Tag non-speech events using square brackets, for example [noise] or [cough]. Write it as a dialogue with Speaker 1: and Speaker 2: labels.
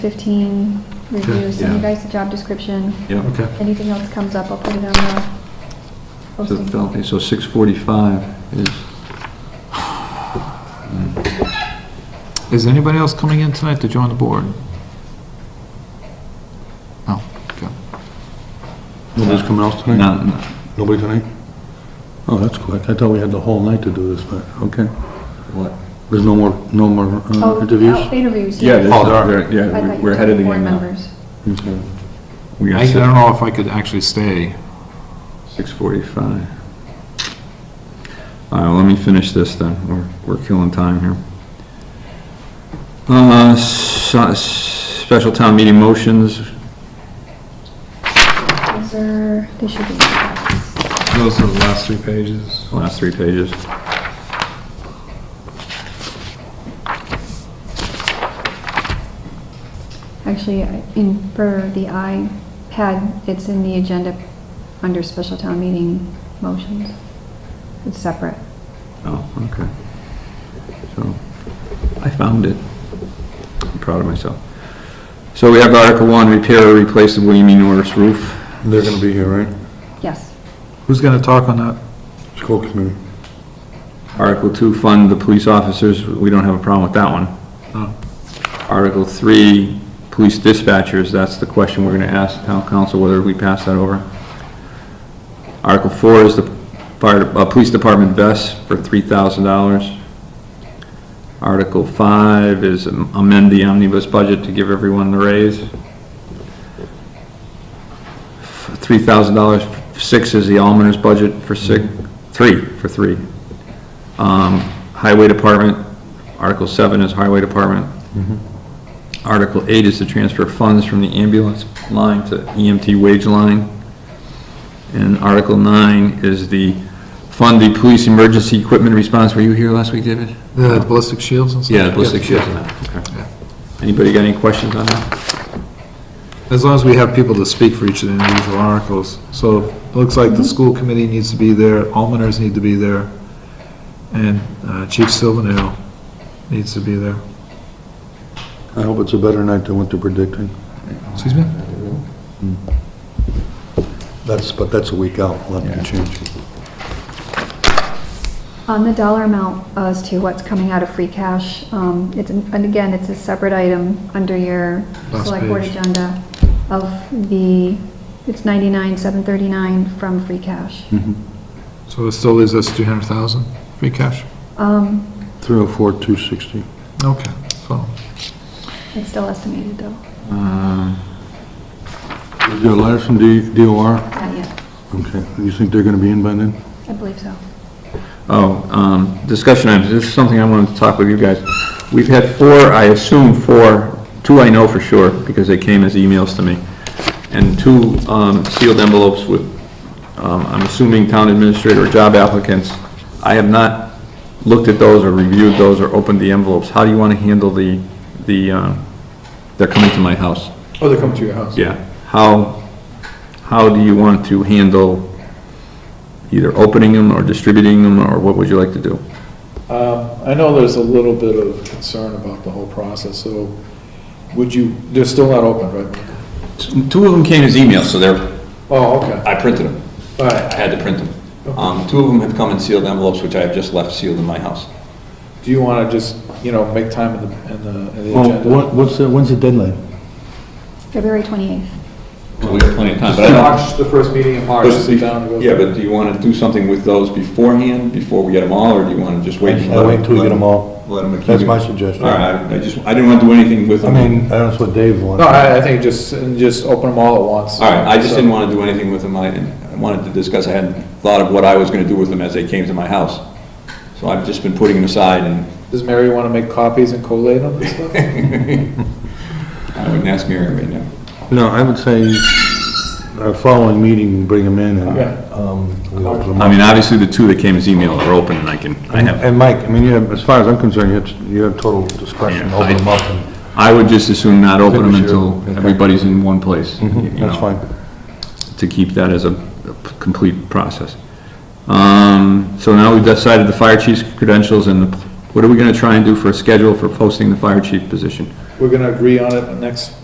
Speaker 1: 15 reviews, send you
Speaker 2: yeah.
Speaker 1: guys the job description.
Speaker 3: Yeah.
Speaker 2: Okay.
Speaker 1: Anything else comes up, I'll put it on the
Speaker 3: So,
Speaker 1: posting.
Speaker 3: okay, so 6:45 is,
Speaker 2: Is anybody else coming in tonight to join the board? Oh, okay.
Speaker 4: Nobody's coming else tonight?
Speaker 3: not, not-
Speaker 4: Nobody tonight? Oh, that's quick. I thought we had the whole night to do this, but, okay.
Speaker 3: what?
Speaker 4: There's no more, no more uh,
Speaker 1: Oh,
Speaker 4: interviews?
Speaker 1: oh, Interviews,
Speaker 3: Yeah,
Speaker 1: yes.
Speaker 3: there's
Speaker 4: Oh, there
Speaker 3: not-
Speaker 4: are.
Speaker 3: there-
Speaker 1: I thought
Speaker 3: yeah,
Speaker 1: you
Speaker 3: we- we're
Speaker 1: took
Speaker 3: ahead of the
Speaker 1: board
Speaker 3: game now.
Speaker 1: members.
Speaker 4: Okay.
Speaker 3: We
Speaker 2: I
Speaker 3: got
Speaker 2: I don't know if I could actually stay.
Speaker 3: 6:45. All right, well, let me finish this then, we're, we're killing time here. Uh, so- special town meeting motions,
Speaker 1: Those are, they should be.
Speaker 5: Those are the last three pages.
Speaker 3: last three pages.
Speaker 1: Actually, I- in, for the iPad, it's in the agenda under special town meeting motions. It's separate.
Speaker 3: Oh, okay. So, I found it. I'm proud of myself. So we have Article 1, repair or replace the William E. Norris roof.
Speaker 4: They're gonna be here, right?
Speaker 1: Yes.
Speaker 2: Who's going to talk on that?
Speaker 4: School committee.
Speaker 3: Article 2, fund the police officers. We don't have a problem with that one.
Speaker 2: No.
Speaker 3: Article 3, police dispatchers. That's the question we're going to ask town council, whether we pass that over. Article 4 is the fire, uh, police department vests for $3,000. Article 5 is amend the omnibus budget to give everyone the raise. $3,000. 6 is the almoner's budget for 6, 3, for 3. Um, Highway Department, Article 7 is Highway Department. Article 8 is to transfer funds from the ambulance line to EMT wage line. And Article 9 is the fund the police emergency equipment response. Were you here last week, David?
Speaker 2: The ballistic shields and stuff?
Speaker 3: Yeah, ballistic shields and that. Okay. Anybody got any questions on that?
Speaker 2: As long as we have people to speak for each of the individual articles. So it looks like the school committee needs to be there, almoners need to be there, and uh, Chief Silvernail needs to be there.
Speaker 4: I hope it's a better night than what they're predicting.
Speaker 2: Excuse me?
Speaker 4: That's, but that's a week out. A lot can change.
Speaker 1: On the dollar amount as to what's coming out of free cash, um, it's, and again, it's a separate item under your
Speaker 2: Last
Speaker 1: select board
Speaker 2: page.
Speaker 1: agenda of the, it's 99, 739 from free cash.
Speaker 2: Hmm. So it still leaves us 200,000 free cash?
Speaker 1: Um,
Speaker 4: 304, 260.
Speaker 2: Okay, so,
Speaker 1: It's still estimated though,
Speaker 3: Um,
Speaker 4: Is there a letter from D- DOR?
Speaker 1: not yet,
Speaker 4: Okay. You think they're gonna be in by then?
Speaker 1: I believe so.
Speaker 3: Oh, um, discussion items. This is something I wanted to talk with you guys. We've had four, I assume four, two I know for sure because they came as emails to me, and two um, sealed envelopes with, um, I'm assuming town administrator or job applicants. I have not looked at those or reviewed those or opened the envelopes. How do you want to handle the, the, um, they're coming to my house?
Speaker 5: Oh, they come to your house?
Speaker 3: Yeah, how, how do you want to handle either opening them or distributing them, or what would you like to do?
Speaker 5: Um, I know there's a little bit of concern about the whole process, so would you, they're still not open, right?
Speaker 3: Two of them came as emails, so they're,
Speaker 5: Oh, okay,
Speaker 3: I printed them,
Speaker 5: all right.
Speaker 3: I had to print them. Um, two of them have come in sealed envelopes, which I have just left sealed in my house.
Speaker 5: Do you want to just, you know, make time in the, in the in the
Speaker 4: Well,
Speaker 5: agenda?
Speaker 4: Oh, what, what's the, when's the deadline?
Speaker 1: February 28th.
Speaker 3: So we have plenty of time, but I don't-
Speaker 5: March, the first meeting in March, sit down and go.
Speaker 3: Yeah, but do you want to do something with those beforehand, before we get them all, or do you want to just wait? and
Speaker 4: I
Speaker 3: let-
Speaker 4: wait uh, till we
Speaker 3: let
Speaker 4: get them all.
Speaker 3: Let them accumulate?
Speaker 4: That's my suggestion.
Speaker 3: All right, I I just, I didn't want to do anything with
Speaker 4: I
Speaker 3: them.
Speaker 4: mean, that's what Dave wants.
Speaker 5: No, I, I think just, and just open them all at once.
Speaker 3: All right, I just didn't want to do anything with them, I I wanted to discuss, I hadn't thought of what I was going to do with them as they came to my house. So I've just been putting them aside, and
Speaker 5: Does Mary want to make copies and collate them and stuff?
Speaker 3: [laughs] I wouldn't ask Mary right now.
Speaker 4: No, I would say our following meeting, bring them in
Speaker 5: Yeah.
Speaker 4: and, um, we open 'em
Speaker 3: I mean, obviously, the two that came as email are open, and I can, I have,
Speaker 4: And Mike, I mean, you have, as far as I'm concerned, you have, you have total discretion,
Speaker 3: Yeah,
Speaker 4: open
Speaker 3: I-
Speaker 4: them up, and
Speaker 3: I would just assume not open them
Speaker 4: Finish your-
Speaker 3: until
Speaker 4: okay. Mm-hmm.
Speaker 3: everybody's in one place. you
Speaker 4: that's
Speaker 3: know,
Speaker 4: fine.
Speaker 3: To keep that as a a p- complete process. Um, so now we've decided the fire chief's credentials, and the- what are we going to try and do for a schedule for posting the fire chief position?
Speaker 2: we're gonna agree on it next